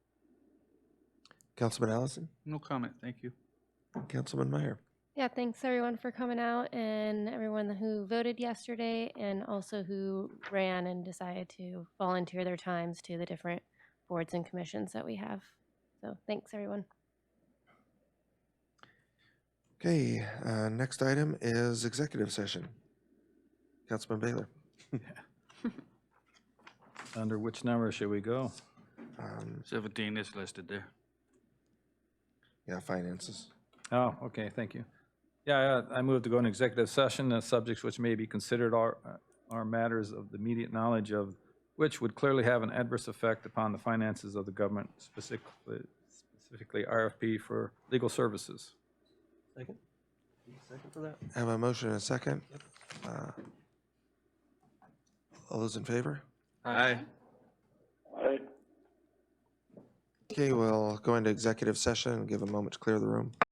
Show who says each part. Speaker 1: Councilman Allison,
Speaker 2: No comment, thank you.
Speaker 1: Councilman Meyer.
Speaker 3: Yeah, thanks everyone for coming out and everyone who voted yesterday and also who ran and decided to volunteer their times to the different boards and commissions that we have. So thanks, everyone.
Speaker 1: Okay, uh, next item is executive session. Councilman Baylor.
Speaker 4: Under which number should we go?
Speaker 1: Um,
Speaker 2: 17 is listed there.
Speaker 1: Yeah, finances.
Speaker 4: Oh, okay, thank you. Yeah, I I move to go in executive session, and subjects which may be considered are, uh, are matters of the immediate knowledge of which would clearly have an adverse effect upon the finances of the government, specifically, specifically RFP for legal services.
Speaker 5: Second? Second for that?
Speaker 1: Have a motion and a second. Uh, All those in favor?
Speaker 2: Aye.
Speaker 1: Okay, we'll go into executive session and give a moment to clear the room.